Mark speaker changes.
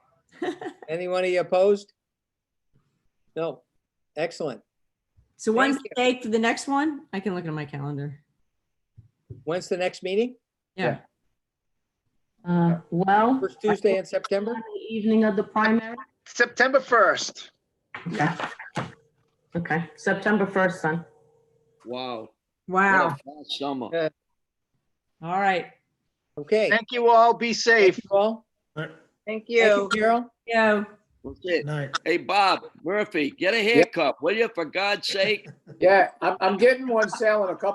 Speaker 1: Anyone of you opposed? No. Excellent.
Speaker 2: So one's
Speaker 1: Thank
Speaker 2: the date for the next one? I can look at my calendar.
Speaker 1: When's the next meeting?
Speaker 2: Yeah,
Speaker 3: Uh, Well.
Speaker 1: First Tuesday in September?
Speaker 3: on the Evening of the primary?
Speaker 4: September 1st.
Speaker 3: Okay. Okay, September 1st then.
Speaker 5: Wow. what a
Speaker 2: wow.
Speaker 5: fast Summer.
Speaker 2: All right.
Speaker 1: Okay.
Speaker 4: Thank you all. Be
Speaker 1: Thank
Speaker 4: safe.
Speaker 1: you all.
Speaker 2: Thank
Speaker 1: Thank you, Carol.
Speaker 2: Yeah,
Speaker 5: That's it.
Speaker 6: Night.
Speaker 5: Hey, Bob Murphy, get a haircut, will you, for God's sake?
Speaker 7: Yeah, I'm, I'm getting one sale in a couple